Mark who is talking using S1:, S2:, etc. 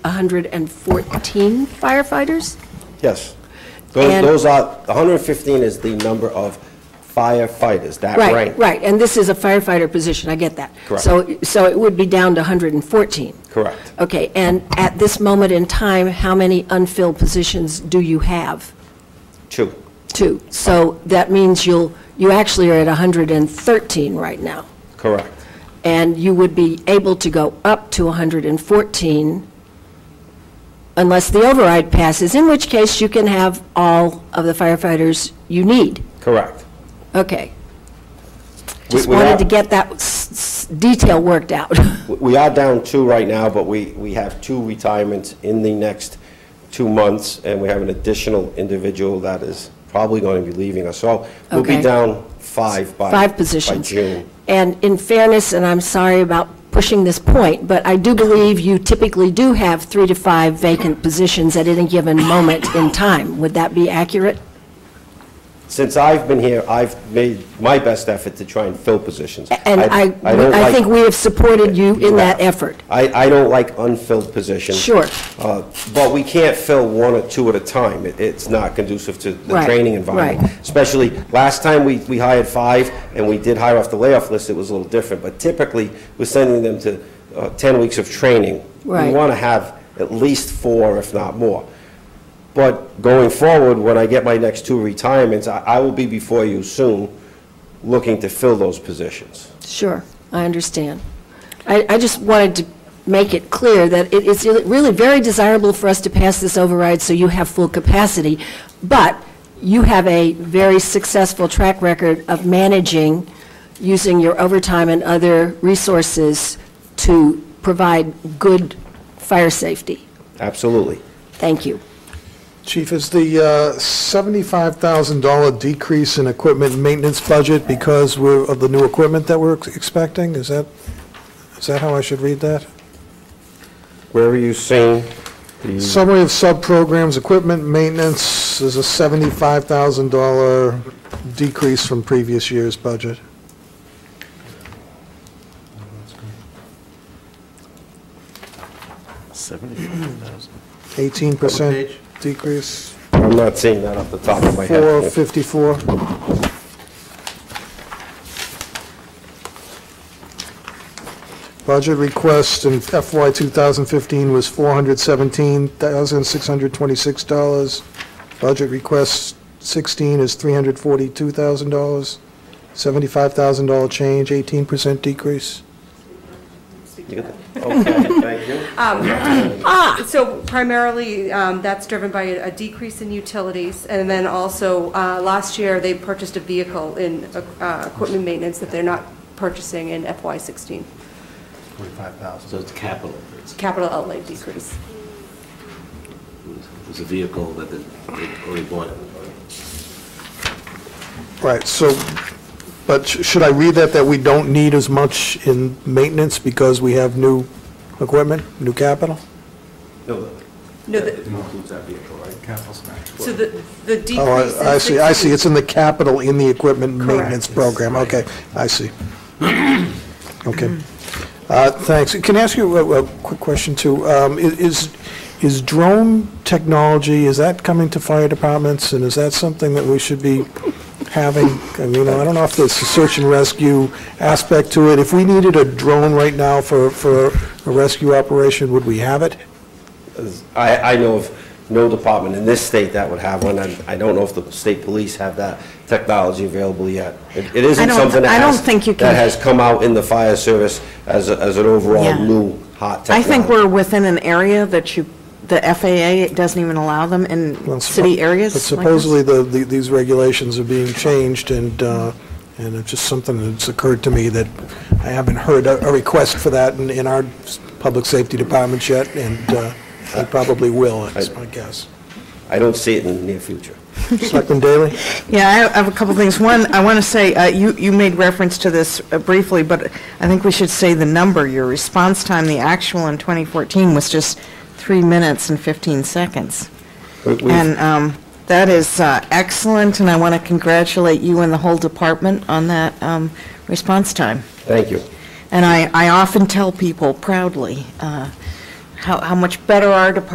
S1: 114 firefighters?
S2: Yes. Those
S1: And-
S2: those are, 115 is the number of firefighters, that
S1: Right,
S2: rank.
S1: right, and this is a firefighter position, I get that.
S2: Correct.
S1: So, so it would be down to 114?
S2: Correct.
S1: Okay, and at this moment in time, how many unfilled positions do you have?
S2: Two.
S1: Two. So that means you'll, you actually are at 113 right now,
S2: Correct.
S1: and you would be able to go up to 114 unless the override passes, in which case you can have all of the firefighters you need.
S2: Correct.
S1: Okay.
S2: We-
S1: Just
S2: we
S1: wanted
S2: are-
S1: to get that s- s- detail worked out.
S2: We are down two right now, but we, we have two retirements in the next two months, and we have an additional individual that is probably going to be leaving us. So we'll be
S1: Okay.
S2: down five by.
S1: Five positions.
S2: By June.
S1: And in fairness, and I'm sorry about pushing this point, but I do believe you typically do have three to five vacant positions at any given moment in time. Would that be accurate?
S2: Since I've been here, I've made my best effort to try and fill positions.
S1: And I,
S2: don't
S1: I
S2: like-
S1: think we have supported you in that
S2: Yeah.
S1: effort.
S2: I, I don't like unfilled positions.
S1: Sure.
S2: Uh, But we can't fill one or two at a time. It- It's not conducive to the
S1: Right,
S2: training environment.
S1: right.
S2: Especially, last time we, we hired five, and we did hire off the layoff list, it was a little different. But typically, we're sending them to uh, 10 weeks of training.
S1: Right.
S2: We want to have at least four, if not more. But going forward, when I get my next two retirements, I, I will be before you soon, looking to fill those positions.
S1: Sure, I understand. I, I just wanted to make it clear that it is really very desirable for us to pass this override so you have full capacity, but you have a very successful track record of managing, using your overtime and other resources to provide good fire safety.
S2: Absolutely.
S1: Thank you.
S3: Chief, is the uh, $75,000 decrease in equipment maintenance budget because we're, of the new equipment that we're expecting? Is that, is that how I should read that?
S2: Where are you seeing the,
S3: Summary of sub-programs, equipment maintenance is a $75,000 decrease from previous year's budget. Seventy-five thousand. 18% decrease,
S2: I'm not seeing that off the top of my head.
S3: 454. Budget request in FY 2015 was $417,626. Budget request 16 is $342,000, $75,000 change, 18% decrease.
S4: So primarily, um, that's driven by a decrease in utilities, and then also, uh, last year, they purchased a vehicle in uh, equipment maintenance that they're not purchasing in FY16.
S5: So it's capital. It's-
S4: Capital outlay decrease.
S5: It was a vehicle that they they already bought.
S3: Right, so, but sh- should I read that, that we don't need as much in maintenance because we have new equipment, new capital?
S4: No, the-
S5: includes that vehicle, right?
S4: so the the decrease
S3: Oh, I I
S4: in
S3: see, I see,
S4: 16
S3: it's in the capital, in the equipment
S4: Correct.
S3: maintenance program, okay, I see. Okay, Uh, thanks. Can I ask you a, a quick question, too? Um, i- Is, is drone technology, is that coming to fire departments, and is that something that we should be having? I mean, I don't know if there's a search and rescue aspect to it. If we needed a drone right now for, for a rescue operation, would we have it?
S2: I, I know of no department in this state that would have one, and I don't know if the state police have that technology available yet. It it
S6: I
S2: isn't
S6: don't-
S2: something that
S6: I don't
S2: has-
S6: think you
S2: That
S6: can-
S2: has come out in the fire service as, a- as an overall
S6: Yeah.
S2: new hot
S6: I
S2: technology.
S6: think we're within an area that you, the FAA doesn't even allow them
S3: Well,
S6: in
S3: suppo-
S6: city
S3: But
S6: areas like this.
S3: supposedly, the, the- these regulations are being changed, and, uh, and it's just something that's occurred to me that I haven't heard a a request for that in, in our s- public safety departments yet, and uh, they probably will, is my guess.
S2: I don't see it in the near future.
S3: Selectman Daley?
S6: Yeah, I have a couple things. One, I want to say, uh, you, you made reference to this uh, briefly, but I think we should say the number. Your response time, the actual in 2014 was just three minutes and 15 seconds.
S2: We- we've-
S6: And um, that is uh, excellent, and I want to congratulate you and the whole department on that um, response time.
S2: Thank you.
S6: And I, I often tell people proudly uh, how, how much better our department